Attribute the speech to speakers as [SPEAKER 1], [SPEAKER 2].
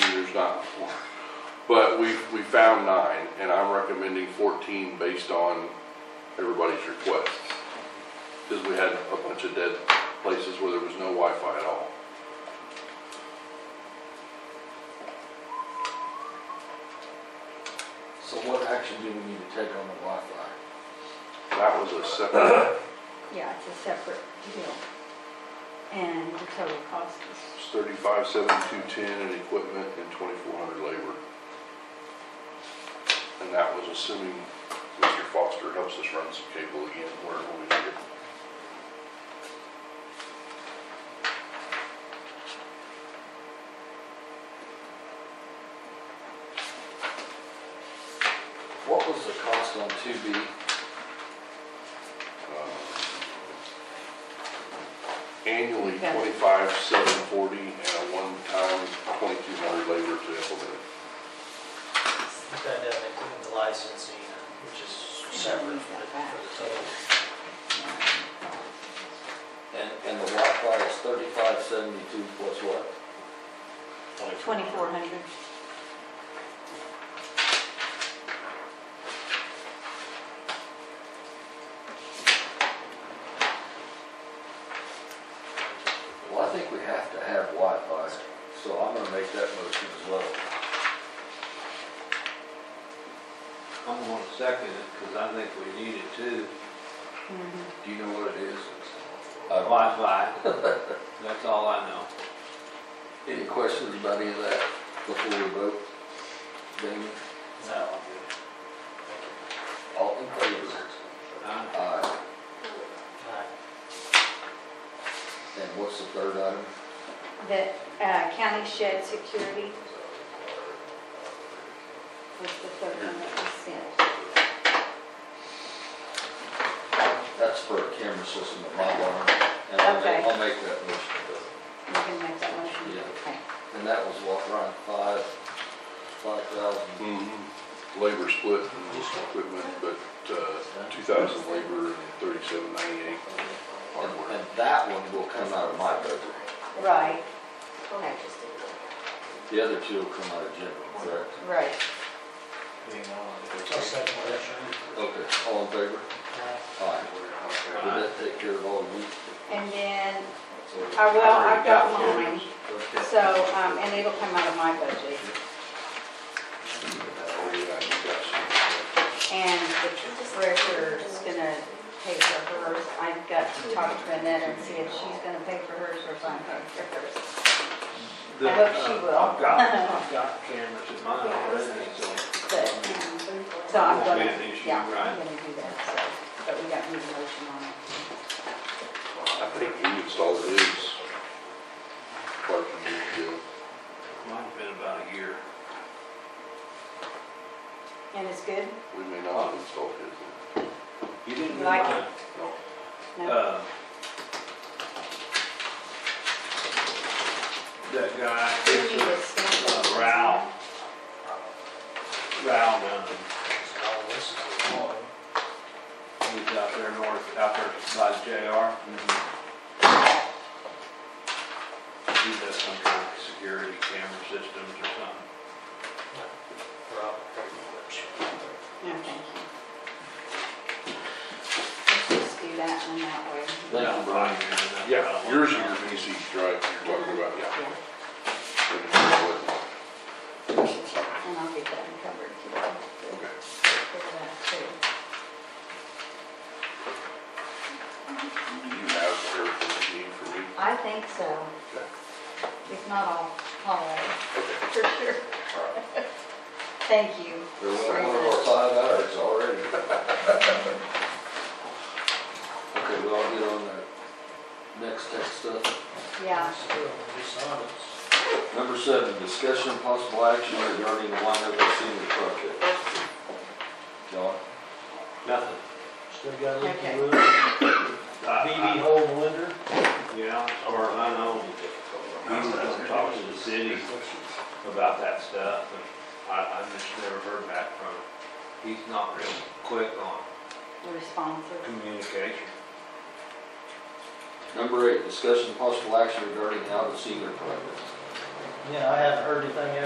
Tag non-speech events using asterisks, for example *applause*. [SPEAKER 1] there's not, but we, we found nine, and I'm recommending fourteen based on everybody's requests. Because we had a bunch of dead places where there was no Wi-Fi at all.
[SPEAKER 2] So what action do we need to take on the Wi-Fi?
[SPEAKER 1] That was a separate,
[SPEAKER 3] Yeah, it's a separate deal. And the total cost is,
[SPEAKER 1] it's thirty-five, seven, two, ten in equipment and twenty-four hundred labor. And that was assuming Mr. Foster helps us run some cable again wherever we need it.
[SPEAKER 2] What was the cost on two B?
[SPEAKER 1] Annually,
[SPEAKER 3] Okay.
[SPEAKER 1] twenty-five, seven forty, and a one-time twenty-two hundred labor to implement.
[SPEAKER 4] But That doesn't include uh, the licensing, uh, which is separate from the, from the total.
[SPEAKER 2] And, and the Wi-Fi is thirty-five seventy-two plus what?
[SPEAKER 3] 2,400.
[SPEAKER 2] Well, I think we have to have Wi-Fi, so I'm gonna make that motion as well.
[SPEAKER 5] I'm gonna second it, because I think we need it too.
[SPEAKER 3] Mhm.
[SPEAKER 2] Do you know what it is? Uh, I don't-
[SPEAKER 5] Wi-Fi, *laughs* that's all I know.
[SPEAKER 2] Any questions about any of that before we vote? Damon,
[SPEAKER 4] No, I'm good.
[SPEAKER 2] all in favor?
[SPEAKER 5] Huh?
[SPEAKER 2] Aye.
[SPEAKER 4] All right.
[SPEAKER 2] And what's the third item?
[SPEAKER 3] The uh, county shed security was the third one that was sent.
[SPEAKER 2] That's for a camera system at my barn, and I'll
[SPEAKER 3] Okay.
[SPEAKER 2] make, I'll make that motion.
[SPEAKER 3] You can make that motion.
[SPEAKER 2] Yeah.
[SPEAKER 3] Okay.
[SPEAKER 2] And that was what, around five, five thousand?
[SPEAKER 1] Mm-hmm. Labor split and equipment, but, uh, two thousand labor and thirty-seven ninety-eight
[SPEAKER 2] And
[SPEAKER 1] hardware.
[SPEAKER 2] and that one will come out of my budget.
[SPEAKER 3] Right. Okay.
[SPEAKER 2] The other two will come out of general, correct?
[SPEAKER 3] Right.
[SPEAKER 4] I'll Oh, second that.
[SPEAKER 2] Okay. All in favor? Aye. Did
[SPEAKER 5] Aye.
[SPEAKER 2] that take care of all of you?
[SPEAKER 3] And then, I well, I've got mine,
[SPEAKER 2] Okay.
[SPEAKER 3] so, um, and it'll come out of my budget.
[SPEAKER 1] Oh, yeah, you got some.
[SPEAKER 3] And the treasurer's gonna pay for hers. I've got to talk to Annette and see if she's gonna pay for hers or if I'm paying for hers.
[SPEAKER 5] The-
[SPEAKER 3] I hope she will.
[SPEAKER 5] I've got, I've *laughs* got cameras in mine already, so.
[SPEAKER 3] But, um, so I'm
[SPEAKER 5] Won't be
[SPEAKER 3] gonna,
[SPEAKER 5] an issue,
[SPEAKER 3] yeah, I'm
[SPEAKER 5] right?
[SPEAKER 3] gonna do that, so, but we got new motion on it.
[SPEAKER 1] I think he installed his part of the deal.
[SPEAKER 5] Mine's been about a year.
[SPEAKER 3] And it's good?
[SPEAKER 1] We may not have installed his.
[SPEAKER 5] You didn't do
[SPEAKER 3] Like
[SPEAKER 5] mine.
[SPEAKER 1] No.
[SPEAKER 3] No?
[SPEAKER 5] Uh, That
[SPEAKER 3] We need
[SPEAKER 5] guy,
[SPEAKER 3] to stamp it.
[SPEAKER 5] Uh, Ralph. um, Val Dunn,
[SPEAKER 4] Oh, this is the one.
[SPEAKER 5] he's out there north, out there by the JR. He does some kind of security camera systems or something.
[SPEAKER 4] Rob, pretty much.
[SPEAKER 3] No, thank you. Let's just do that one that way.
[SPEAKER 2] Thank you, Brian.
[SPEAKER 1] Yeah, yours is your VCs, right, you're talking about, yeah.
[SPEAKER 3] And I'll get that covered too.
[SPEAKER 1] Okay.
[SPEAKER 3] For that too.
[SPEAKER 1] Do you have everything you need for me?
[SPEAKER 3] I think so.
[SPEAKER 1] Okay.
[SPEAKER 3] If not, I'll call it
[SPEAKER 1] Okay,
[SPEAKER 3] for sure.
[SPEAKER 1] all right.
[SPEAKER 3] Thank you.
[SPEAKER 2] There was one of our five hours already. *laughs* Okay, we all get on that next tech stuff.
[SPEAKER 3] Yeah.
[SPEAKER 4] Still, we saw this.
[SPEAKER 2] Number seven, discussion and possible action regarding the Winoka Senior Project. John?
[SPEAKER 5] Nothing.
[SPEAKER 4] Still got a leaky
[SPEAKER 3] Okay.
[SPEAKER 4] roof. BB
[SPEAKER 5] I-
[SPEAKER 4] hole in the window.
[SPEAKER 5] I- Yeah, or I know, I'm talking to the city about that stuff, and I, I just never heard back from him. He's not real quick on
[SPEAKER 3] Responsive.
[SPEAKER 5] communication.
[SPEAKER 2] Number eight, discussion and possible action regarding the Alba Senior Project.
[SPEAKER 4] Yeah, I haven't heard anything